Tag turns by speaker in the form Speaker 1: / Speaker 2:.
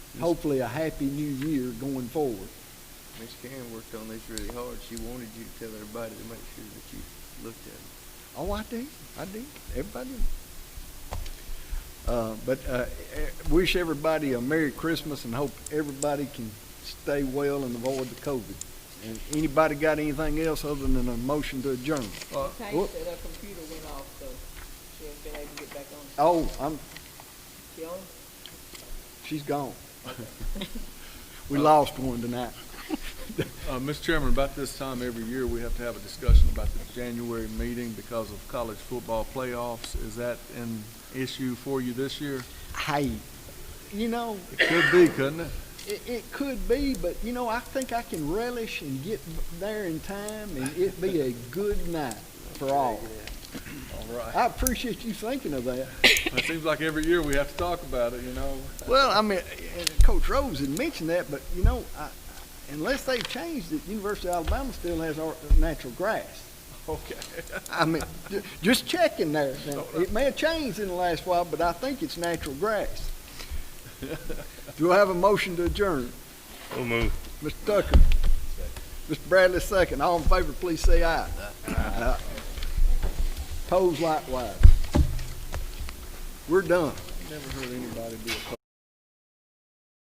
Speaker 1: hopefully a happy new year going forward.
Speaker 2: Miss Karen worked on this really hard. She wanted you to tell everybody to make sure that you looked at it.
Speaker 1: Oh, I did, I did, everybody did. Uh, but, uh, eh, wish everybody a Merry Christmas and hope everybody can stay well and avoid the COVID. And anybody got anything else other than a motion to adjourn? Uh,
Speaker 3: Tank
Speaker 1: whoop.
Speaker 3: said her computer went off, so she ain't been able to get back on.
Speaker 1: Oh, I'm,
Speaker 3: She on?
Speaker 1: she's gone. We lost one tonight.
Speaker 4: Uh, Mr. Chairman, about this time every year, we have to have a discussion about the January meeting because of college football playoffs. Is that an issue for you this year?
Speaker 1: Hey, you know,
Speaker 4: It could be, couldn't it?
Speaker 1: It, it could be, but you know, I think I can relish and get there in time, and it be a good night for all.
Speaker 4: All right.
Speaker 1: I appreciate you thinking of that.
Speaker 4: It seems like every year we have to talk about it, you know?
Speaker 1: Well, I mean, and Coach Rose had mentioned that, but you know, I, unless they've changed it, University of Alabama still has our natural grass.
Speaker 4: Okay.
Speaker 1: I mean, ju- just checking there. Now, It may have changed in the last while, but I think it's natural grass. Do I have a motion to adjourn?
Speaker 5: So moved.
Speaker 1: Mr. Tucker. Mr. Bradley, second. All in favor, please say aye. Aye. Pose likewise. We're done.
Speaker 4: Never heard anybody do a